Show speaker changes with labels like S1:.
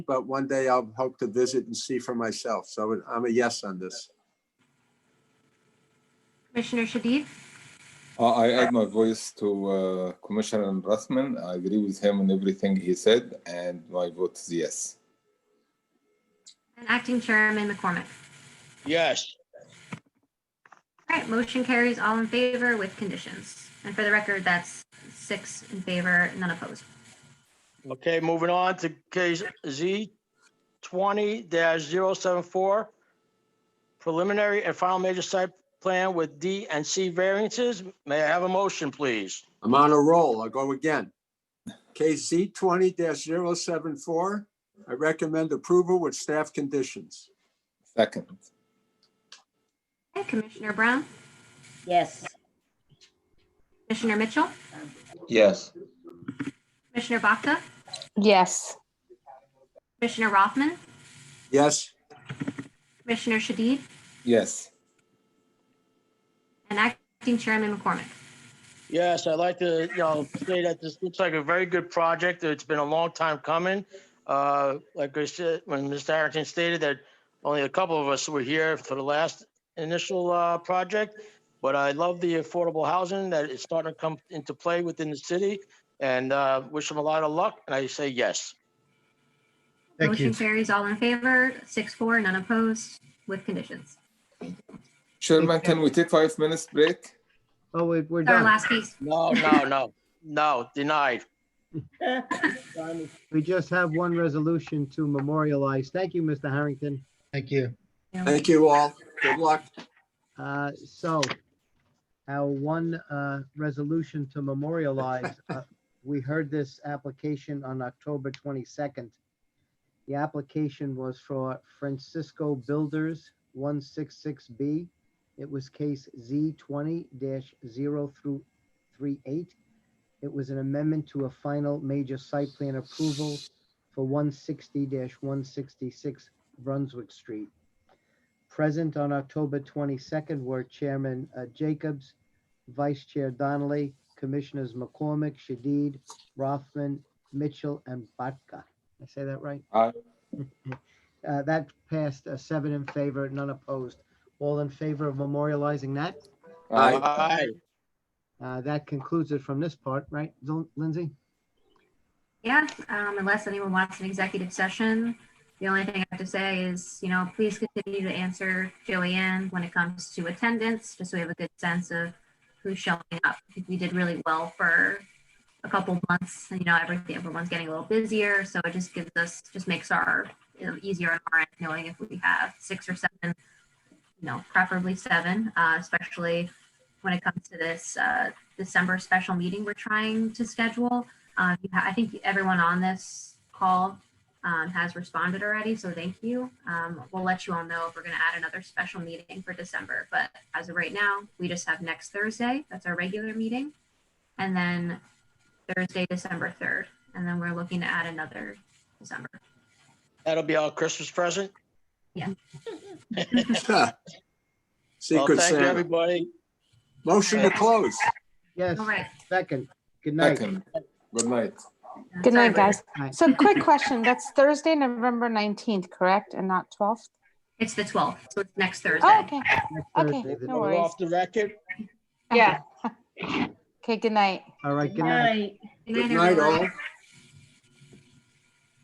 S1: but one day I'll hope to visit and see for myself. So I'm a yes on this.
S2: Commissioner Shadid?
S3: Uh, I add my voice to uh, Commissioner Rathman. I agree with him on everything he said, and my vote is yes.
S2: And Acting Chairman McCormick?
S4: Yes,
S2: All right, motion carries all in favor with conditions. And for the record, that's six in favor, none opposed.
S4: okay, moving on to case Z twenty 74 Preliminary and final major site plan with D and C variances. May I have a motion, please?
S1: I'm on a roll. I'll go again. KC twenty 74 I recommend approval with staff conditions.
S3: Second,
S2: Okay, Commissioner Brown?
S5: Yes.
S2: Commissioner Mitchell?
S6: Yes.
S2: Commissioner Baca?
S5: Yes.
S2: Commissioner Rothman?
S1: Yes,
S2: Commissioner Shadid?
S3: yes,
S2: And Acting Chairman McCormick?
S4: Yes, I'd like to, you know, say that this looks like a very good project. It's been a long time coming. Uh, Like I said, when Mr. Harrington stated that only a couple of us were here for the last initial uh, project, but I love the affordable housing that is starting to come into play within the city and uh, wish them a lot of luck. And I say yes.
S7: Thank you.
S2: Motion carries all in favor, six, four, none opposed with conditions.
S3: Chairman, can we take five minutes break?
S7: Oh, we- we're
S2: It's Our
S7: done.
S2: last case.
S4: No, no, no, no, denied.
S7: We just have one resolution to memorialize. Thank you, Mr. Harrington.
S8: Thank you.
S1: thank you all. Good luck.
S7: Uh, So our one uh, resolution to memorialize, uh, we heard this application on October 22nd. The application was for Francisco Builders, 166B. It was case Z20-0 through 38. It was an amendment to a final major site plan approval for 160-166 Brunswick Street. Present on October 22nd were Chairman uh, Jacobs, Vice Chair Donnelly, Commissioners McCormick, Shadid, Rothman, Mitchell, and Batka. I say that right?
S3: Aye.
S7: Uh, That passed uh, seven in favor, none opposed. All in favor of memorializing that?
S1: Aye.
S4: Aye.
S7: Uh, That concludes it from this part, right, Lin- Lindsay?
S2: Yeah, um, unless anyone wants an executive session, the only thing I have to say is, you know, please continue to answer Joanne when it comes to attendance, just so we have a good sense of who's showing up. I think we did really well for a couple months, and you know, everything, everyone's getting a little busier, so it just gives us, just makes our, you know, easier on our end, knowing if we have six or seven, you know, preferably seven, uh, especially when it comes to this, uh, December special meeting we're trying to schedule. Um, you ha- I think everyone on this call um, has responded already, so thank you. Um, we'll let you all know if we're going to add another special meeting for December, but as of right now, we just have next Thursday. That's our regular meeting, and then Thursday, December third, and then we're looking to add another December.
S4: That'll be our Christmas present. Well,
S1: Secret
S4: thank you,
S1: Santa.
S4: everybody.
S1: Motion to close.
S7: Yes,
S2: All right.
S7: second. Good night.
S3: Second, good night.
S9: Good
S2: Sorry,
S9: night, guys.
S7: Night.
S9: So quick question, that's Thursday, November 19th, correct, and not 12th?
S2: It's the twelfth, so it's next Thursday.
S9: Oh, okay,
S7: Next
S9: okay,
S7: Thursday.
S9: no
S4: We're
S9: worries.
S4: off the record.
S9: Yeah. Okay, good night.
S7: All right, good night.
S5: Night.
S2: Good night,
S1: Good night,
S2: everyone.
S1: all.